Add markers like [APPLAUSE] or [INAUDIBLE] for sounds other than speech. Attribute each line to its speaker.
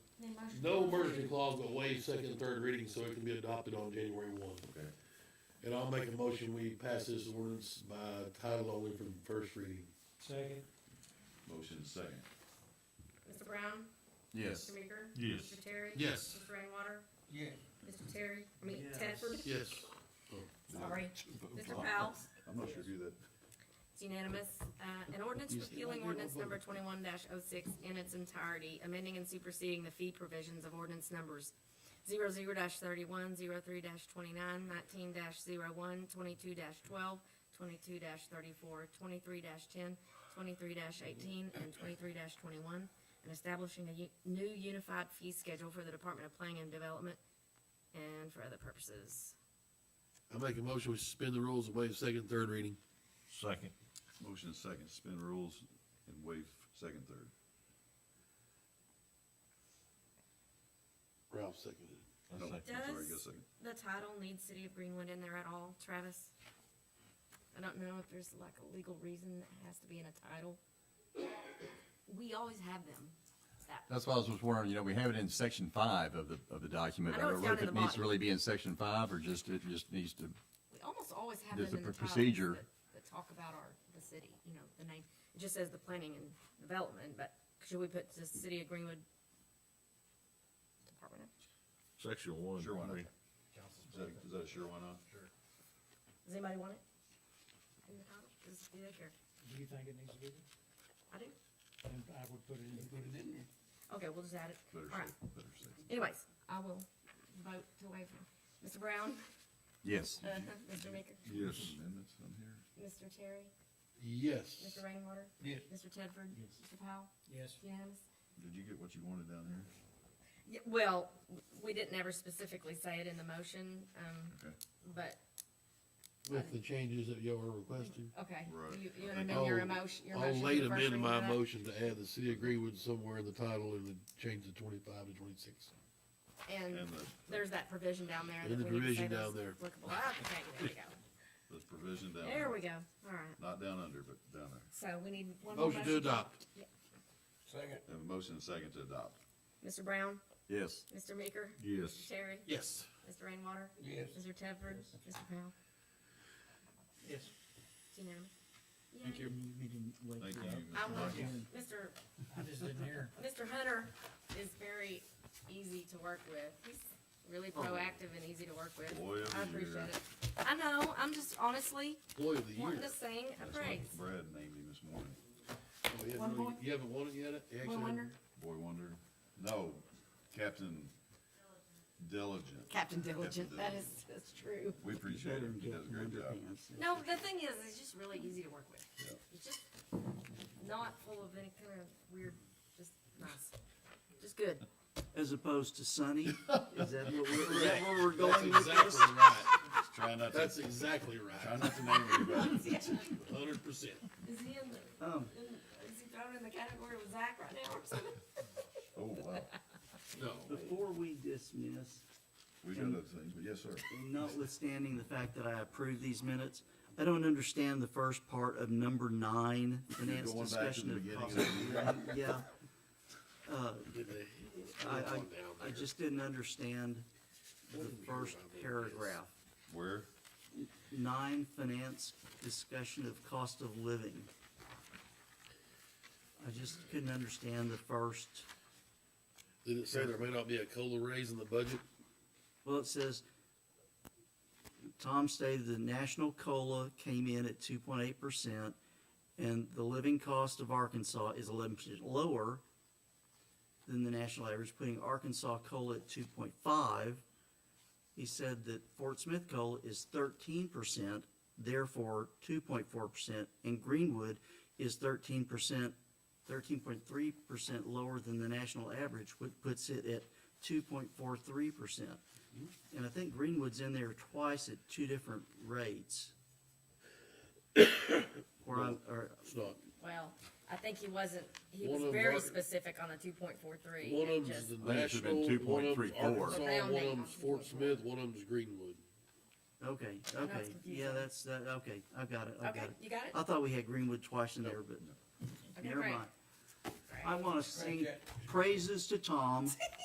Speaker 1: no emergency clause, but waive second and third reading so it can be adopted on January one.
Speaker 2: Okay,
Speaker 1: And I'll make a motion, we pass this ordinance by title only for the first reading.
Speaker 3: Second.
Speaker 2: motion second.
Speaker 4: Mr. Brown?
Speaker 2: Yes.
Speaker 4: Mr. Meeker?
Speaker 5: Yes.
Speaker 4: Mr. Terry?
Speaker 1: Yes.
Speaker 4: Mr. Rainwater?
Speaker 3: Yes.
Speaker 4: Mr. Terry, I mean, Tedford?
Speaker 1: Yes.
Speaker 4: Sorry. Mr. Powell?
Speaker 2: I'm not sure who that,
Speaker 4: It's unanimous. Uh, an ordinance repealing ordinance number twenty-one 6 in its entirety, amending and superseding the fee provisions of ordinance numbers 0 thirty-one, zero three dash twenty-nine, nineteen dash zero one, twenty-two dash twelve, twenty-two dash thirty-four, twenty-three dash ten, twenty-three dash eighteen, and twenty-three dash twenty-one, and establishing a u- new unified fee schedule for the Department of Planning and Development and for other purposes.
Speaker 1: I make a motion, we suspend the rules and waive second and third reading.
Speaker 5: Second.
Speaker 2: motion second, suspend rules and waive second, third.
Speaker 1: Ralph seconded.
Speaker 2: No, I'm sorry,
Speaker 4: Does-
Speaker 2: guess second.
Speaker 4: the title needs City of Greenwood in there at all, Travis? I don't know if there's like a legal reason that has to be in a title. We always have them. That-
Speaker 6: That's why I was just wondering, you know, we have it in section five of the, of the document.
Speaker 4: I
Speaker 6: I
Speaker 4: know
Speaker 6: don't
Speaker 4: it's
Speaker 6: know if
Speaker 4: down at
Speaker 6: it
Speaker 4: the
Speaker 6: needs
Speaker 4: bottom.
Speaker 6: to really be in section five or just, it just needs to,
Speaker 4: We almost always have them
Speaker 6: There's
Speaker 4: in the
Speaker 6: a
Speaker 4: titles
Speaker 6: procedure.
Speaker 4: that- That talk about our, the city, you know, the name. It just says the planning and development, but should we put the City of Greenwood? Department? of-
Speaker 5: Section one.
Speaker 2: Sure, why not?
Speaker 5: Read.
Speaker 2: Is that, is that a sure why not?
Speaker 4: Does anybody want it? In the title? Does, do they care?
Speaker 3: Do you think it needs to be there?
Speaker 4: I do.
Speaker 3: Then I would put it in. Put it in there.
Speaker 4: Okay, we'll just add it. All
Speaker 2: Better
Speaker 4: right.
Speaker 2: safe, better safe.
Speaker 4: Anyways, I will vote to waive. Mr. [LAUGHS] Brown?
Speaker 6: yes.
Speaker 4: Uh, Mr. Maker,
Speaker 2: Yes. Amendments on here?
Speaker 4: Mr. Terry,
Speaker 1: Yes.
Speaker 4: Mr. Rainwater,
Speaker 3: Yes.
Speaker 4: Mr. Tedford, Mr. Powell,
Speaker 3: Yes.
Speaker 4: unanimous?
Speaker 2: Did you get what you wanted down there?
Speaker 4: Yeah, well, we didn't ever specifically say it in the motion, um,
Speaker 2: Okay.
Speaker 4: but,
Speaker 1: With the changes that y'all are requesting.
Speaker 4: okay,
Speaker 2: Right.
Speaker 4: you, you amend your
Speaker 1: I'll-
Speaker 4: emotion, your
Speaker 1: I'll
Speaker 4: motion.
Speaker 1: late
Speaker 4: to first
Speaker 1: amend
Speaker 4: reading
Speaker 1: my
Speaker 4: to that?
Speaker 1: motion to add the city of Greenwood somewhere in the title and then change the twenty-five to twenty-six.
Speaker 4: And
Speaker 2: And the,
Speaker 4: there's that provision down there.
Speaker 1: And
Speaker 4: that
Speaker 1: the
Speaker 4: we need to say
Speaker 1: provision down
Speaker 4: those
Speaker 1: there.
Speaker 4: applicable. Ah, Okay, there we
Speaker 1: [LAUGHS]
Speaker 4: go,
Speaker 2: the provision down
Speaker 4: there
Speaker 2: there,
Speaker 4: we go, all right,
Speaker 2: not down under, but down there.
Speaker 4: so we need one more
Speaker 1: Motion to
Speaker 4: motion.
Speaker 1: adopt.
Speaker 3: Second.
Speaker 2: Have a motion second to adopt.
Speaker 4: Mr. Brown,
Speaker 6: Yes.
Speaker 4: Mr. Meeker, Mr.
Speaker 5: Yes.
Speaker 4: Terry,
Speaker 1: Yes.
Speaker 4: Mr. Rainwater,
Speaker 3: Yes.
Speaker 4: Mr. Tedford, Mr. Powell,
Speaker 3: Yes.
Speaker 4: it's unanimous.
Speaker 1: Thank
Speaker 4: Yay.
Speaker 1: you.
Speaker 2: Thank you,
Speaker 4: I
Speaker 2: Mr.
Speaker 4: want,
Speaker 2: Markey.
Speaker 4: Mr.
Speaker 3: I just didn't hear.
Speaker 4: Mr. Hunter is very easy to work with. He's really proactive and easy to work with.
Speaker 2: Boy of
Speaker 4: I
Speaker 2: the
Speaker 4: appreciate
Speaker 2: year.
Speaker 4: it. I know, I'm just honestly
Speaker 1: Employee of the year.
Speaker 4: wanting to sing a
Speaker 2: That's what
Speaker 4: praise.
Speaker 2: Brad named him this morning.
Speaker 1: Oh, you haven't
Speaker 4: One
Speaker 1: really-
Speaker 4: more.
Speaker 1: You haven't won it yet? You actually
Speaker 4: One wonder,
Speaker 1: haven't-
Speaker 2: Boy Wonder? No, Captain Diligent.
Speaker 4: Captain Diligent, that is, that's true.
Speaker 2: We appreciate him. He does a great job.
Speaker 4: No, the thing is, he's just really easy to work with.
Speaker 2: Yeah.
Speaker 4: He's just not full of any kind of weird, just nice, just good.
Speaker 7: as opposed to sunny? Is that what we're, is that where we're going
Speaker 1: That's
Speaker 7: with this?
Speaker 1: exactly right.
Speaker 2: Try not to,
Speaker 1: That's exactly
Speaker 2: try
Speaker 1: right.
Speaker 2: not to name anybody.
Speaker 4: Is he in the,
Speaker 1: Hundred percent.
Speaker 4: is he
Speaker 7: Um,
Speaker 4: thrown in the category with Zach right now or something?
Speaker 2: Oh, wow.
Speaker 1: No.
Speaker 7: Before we dismiss,
Speaker 2: We got other things, but yes, sir.
Speaker 7: and notwithstanding the fact that I approve these minutes, I don't understand the first part of number nine, finance
Speaker 2: Going back to
Speaker 7: discussion
Speaker 2: the
Speaker 7: of
Speaker 2: beginning of
Speaker 7: possible.
Speaker 2: the year.
Speaker 7: Yeah,
Speaker 1: Get the-
Speaker 7: I, I,
Speaker 1: Down there.
Speaker 7: I just didn't understand the first paragraph.
Speaker 2: Where?
Speaker 7: Nine, finance discussion of cost of living. I just couldn't understand the first.
Speaker 1: Did it say there may not be a COLA raise in the budget?
Speaker 7: Well, it says, Tom stated the national COLA came in at two point eight percent, and the living cost of Arkansas is eleven percent lower than the national average, putting Arkansas COLA at two point five. He said that Fort Smith COLA is thirteen percent, therefore two point four percent, and Greenwood is thirteen percent, thirteen point three percent lower than the national average, which puts it at two point four three percent. And I think Greenwood's in there twice at two different rates. Or, I- or,
Speaker 1: It's not.
Speaker 4: Well, I think he wasn't, he
Speaker 1: One
Speaker 4: was
Speaker 1: of 'em
Speaker 4: very
Speaker 1: are-
Speaker 4: specific on the two point four three.
Speaker 1: One of them's the
Speaker 6: I think it should have
Speaker 1: national,
Speaker 6: been
Speaker 1: one of them's
Speaker 6: 2.34.
Speaker 1: Arkansas, one of them's Fort Smith, one of them's Greenwood.
Speaker 7: okay,
Speaker 4: I know it's
Speaker 7: okay, yeah,
Speaker 4: confusing.
Speaker 7: that's, that, okay, I've got it, I've
Speaker 4: Okay,
Speaker 7: got it.
Speaker 4: you got it?
Speaker 7: I thought we had Greenwood twice in there, but
Speaker 4: Okay,
Speaker 7: Uh, never
Speaker 4: great.
Speaker 7: mind. I wanna sing praises to Tom